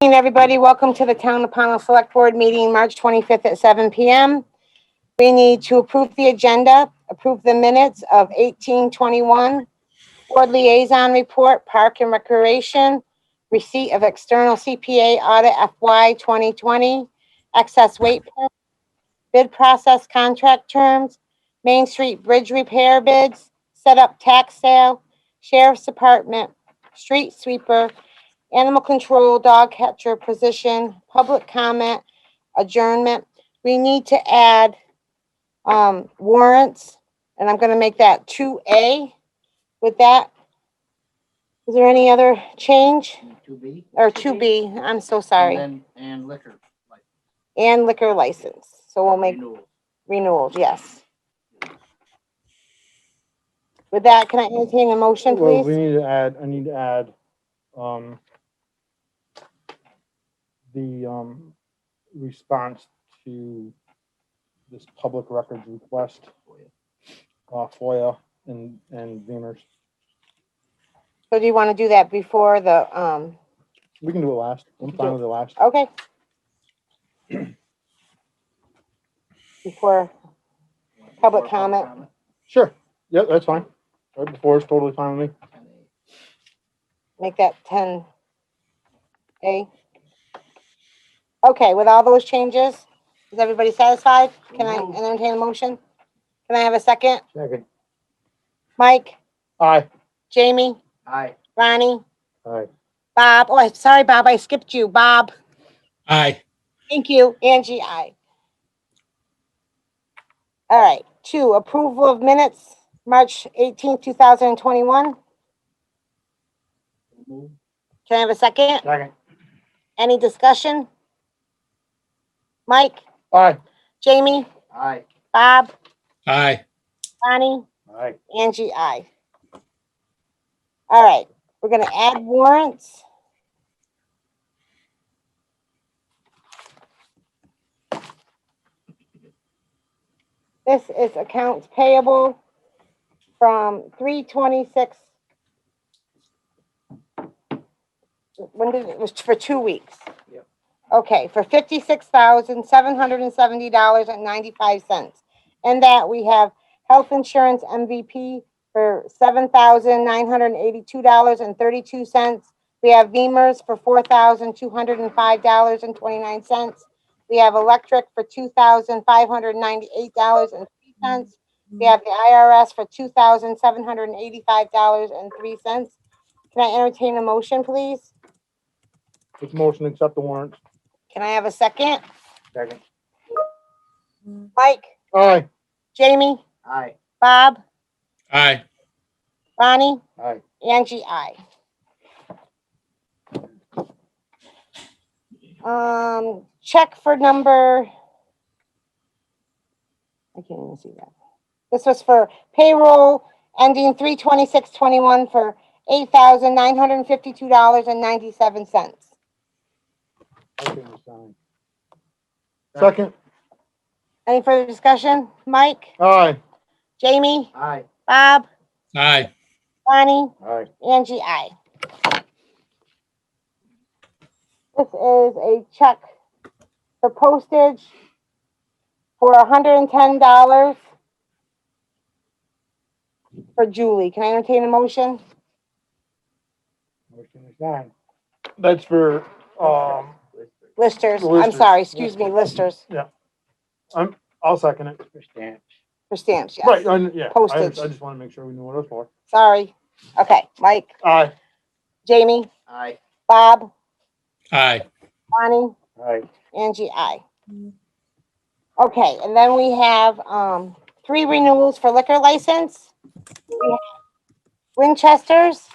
Evening, everybody. Welcome to the Town of Pownell Select Board meeting, March 25th at 7 PM. We need to approve the agenda, approve the minutes of 1821, Board Liaison Report, Park and Recreation, receipt of external CPA audit FY 2020, excess weight, per- bid process contract terms, Main Street Bridge repair bids, set up tax sale, Sheriff's Department, street sweeper, animal control, dog catcher position, public comment, adjournment. We need to add um, warrants, and I'm gonna make that two A with that. Is there any other change? Two B? Or two B, I'm so sorry, And then, and liquor. like, and liquor license. So we'll make renewal. renewals, yes. With that, can I entertain a motion, Well, we please? need to add, I need to add, um, the, um, response to this public records request, uh, FOIA and, and Beamer's. So do you want to do that before the, um, We can do it last. I'm fine with it last. Okay. Before, Public Before comment. Sure. Yep, that's fine. Right before is totally fine with me. And a- make that ten A. Okay, with all those changes, is everybody satisfied? Can I entertain a motion? Can I have a second? Second. Mike, Aye. Jamie, Aye, Ronnie, Aye. Bob, oh, I'm sorry, Bob, I skipped you, Bob. Aye. Thank you, Angie, I. All right, two, approval of minutes, March eighteenth, two thousand and twenty-one. move, Can I have a second? Second. Any discussion? Mike, Aye. Jamie, aye, Bob, Aye. Bonnie, Aye. Angie, I. All right, we're gonna add warrants. This is accounts payable from three twenty-six. When did, it was for two weeks? Yep. Okay, for fifty-six thousand, seven hundred and seventy dollars and ninety-five cents. And that we have health insurance MVP for seven thousand nine hundred eighty-two dollars and thirty-two cents. We have Beamers for four thousand two hundred and five dollars and twenty-nine cents. We have electric for two thousand five hundred ninety-eight dollars and three cents. We have the IRS for two thousand seven hundred eighty-five dollars and three cents. Can I entertain a motion, please? This motion, to accept the warrants. Can I have a second? Second. Mike, Aye. Jamie, aye, Bob, Aye. Ronnie? Aye. Angie, I. Um, check for number. I can't even see that. This was for payroll ending three twenty-six twenty-one for eight thousand nine hundred and fifty-two dollars and ninety-seven cents. Motion to sign. Second. Any further discussion? Mike, Aye. Jamie, aye, Bob, Aye. Bonnie? Aye. Angie, I. This is a check for postage for hundred and ten dollars for Julie. Can I entertain a motion? Motion to sign. That's for, um, Listers, I'm Listers. sorry, excuse me, listers I'll second it. Stamps. for stamps, Right, uh, yes. I, yeah, I, I Postage. just wanna make sure we know what it's for. Sorry. Okay, Mike, Aye. Jamie, aye, Bob, Aye. Bonnie, Aye. Angie, I. Okay, and then we have, um, three renewals for liquor license. We have Winchester's.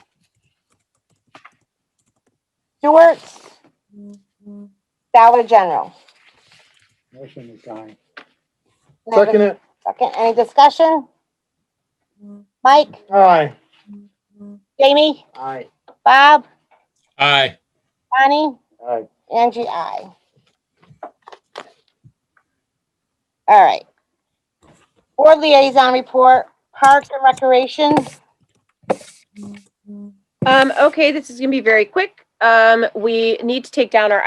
Stewart's. Dollar General. Motion to sign. Can I have a Second it. Second, any discussion? Mike, Aye. Jamie, aye, Bob, Aye. Bonnie? Aye. Angie, I. All right. Board liaison report, Parks and Recreation. Um, okay, this is gonna be very quick. Um, we need to take down our